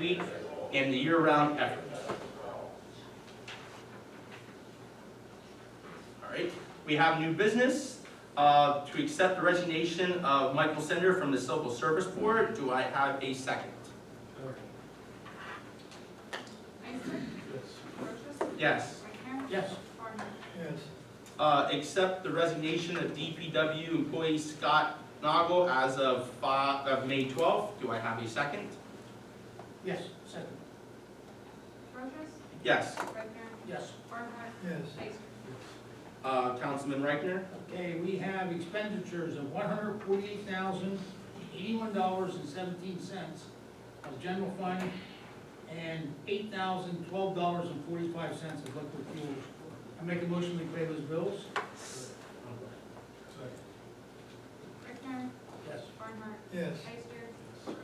community and the year-round effort. All right, we have new business, uh, to accept the resignation of Michael Sender from the Civil Service Board. Do I have a second? Ister. Brochus. Yes. Rechner. Yes. Barnhart. Yes. Uh, accept the resignation of DPW employee Scott Nagel as of five, of May twelfth. Do I have a second? Yes, second, Brochus. Yes. Rechner. yes. Barnhart. Yes. Ister. Uh, Councilman Reichner? Okay, we have expenditures of one hundred forty-eight thousand, eighty-one dollars and seventeen cents of general fund and eight thousand, twelve dollars and forty-five cents of liquid fuels. I make a motion we pay those bills? Rechner. Yes. Barnhart. Yes. Ister.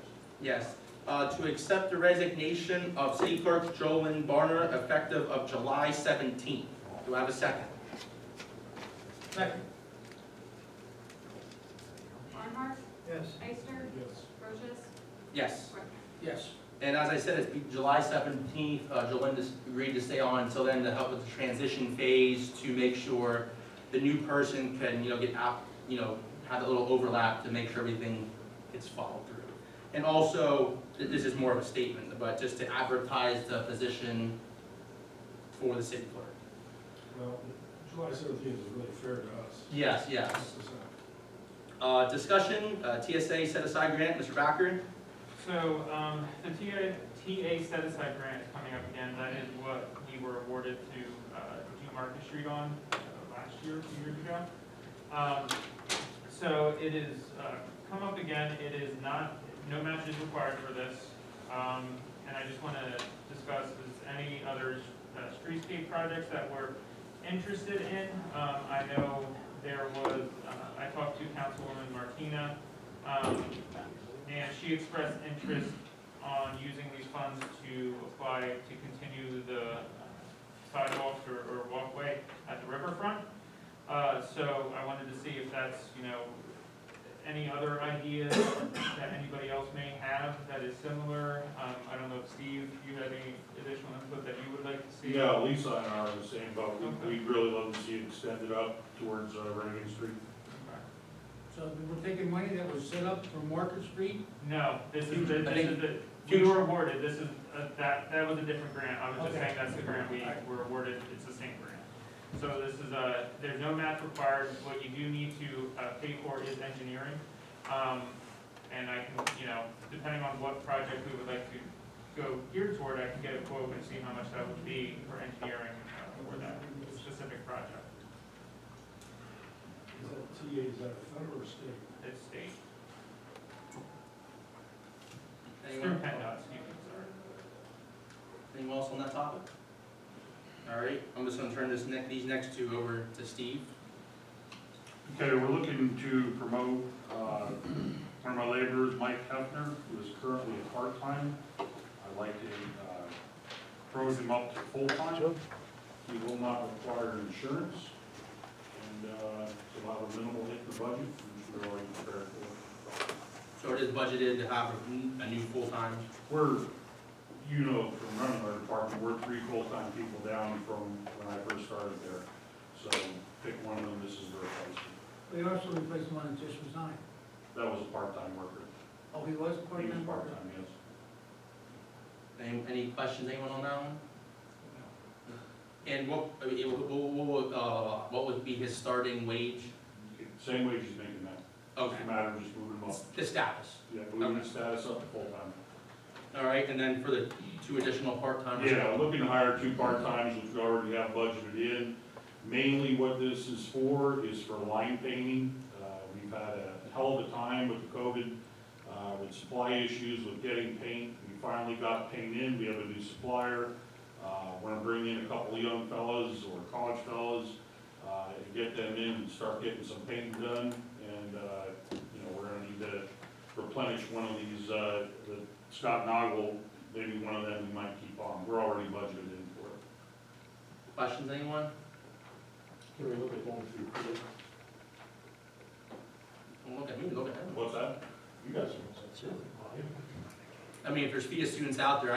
Yes. Uh, to accept the resignation of City Clerk Jolynn Barner effective of July seventeenth. Do I have a second? Second, Barnhart. Yes. Ister. Yes. Brochus. Yes. Rechner. yes. And as I said, it's be- July seventeenth, uh, Jolynn just agreed to stay on until then to help with the transition phase to make sure the new person can, you know, get out, you know, have a little overlap to make sure everything gets followed through. And also, th- this is more of a statement, but just to advertise the position for the city clerk. Well, July seventeenth is really fair to us. Yes, yes. This is not- Uh, discussion, uh, TSA set aside grant, Mr. Backer? So, um, the TA, TA set aside grant is coming up again, that is what we were awarded to, uh, do Market Street on, uh, last year, two years ago. Um, so it is, uh, come up again, it is not, no match is required for this. Um, and I just wanna discuss, is any other, uh, streetscape projects that we're interested in? Um, I know there was, uh, I talked to Councilwoman Martina, um, and she expressed interest on using these funds to apply to continue the uh, sidewalks or, or walkway at the riverfront. Uh, so I wanted to see if that's, you know, any other ideas that anybody else may have that is similar. Um, I don't know if Steve, you had any additional input that you would like to see? Yeah, Lisa and I are in the same boat. We, we really love to see it extended up towards uh, Reagan Street. So we're taking money that was set up for Market Street? No, this is, the- I this think- is the, we were awarded, this is, uh, that, that was a different grant, I was just Okay. saying that's the grant we were awarded, it's the same grant. So this is a, there's no match required, what you do need to, uh, pay for is engineering. Um, and I can, you know, depending on what project we would like to go geared toward, I can get a quote and see how much that would be for engineering uh, for that specific project, Is that TA, is that federal or state? it's state, it's through Anyone, PennDOT, excuse me, sorry. anyone else on that topic? All right, I'm just gonna turn this neck, these next two over to Steve. Okay, we're looking to promote, uh, one of my laborers, Mike Hefner, who is currently a part-time. I'd like to, uh, promote him up to full-time. He will not require insurance, and, uh, it's about a minimal hit in the budget, which we're already prepared for. So it is budgeted to have a a new full-time, We're, you know, from running our department, we're three full-time people down from when I first started there. So pick one of them, this is the replacement. They also replaced one that just resigned. That was a part-time worker. Oh, he was He was part-time worker? part-time, yes. any, any questions, anyone on that one? And what, I mean, it- what, what, uh, what would be his starting wage? Same wage he's making now. Okay, It's a matter of just moving him up. the status, Yeah, moving his status up to full-time. all right, and then for the two additional part-timers? Yeah, I'm looking to hire two part-times, which we already have budgeted in. Mainly what this is for is for line painting. Uh, We've had a hell of a time with COVID, uh, with supply issues, with getting paint. We finally got paint in, we have a new supplier. Uh, We're gonna bring in a couple of young fellas or college fellas, uh, and get them in and start getting some painting done. And, uh, you know, we're gonna need to replenish one of these, uh, the Scott Noggle maybe one of them we might keep on, we're already budgeted in for it. Questions, anyone? Can we look at going through? Don't look at me, look at him. What's that? You guys. I mean, if there's FIA students out there,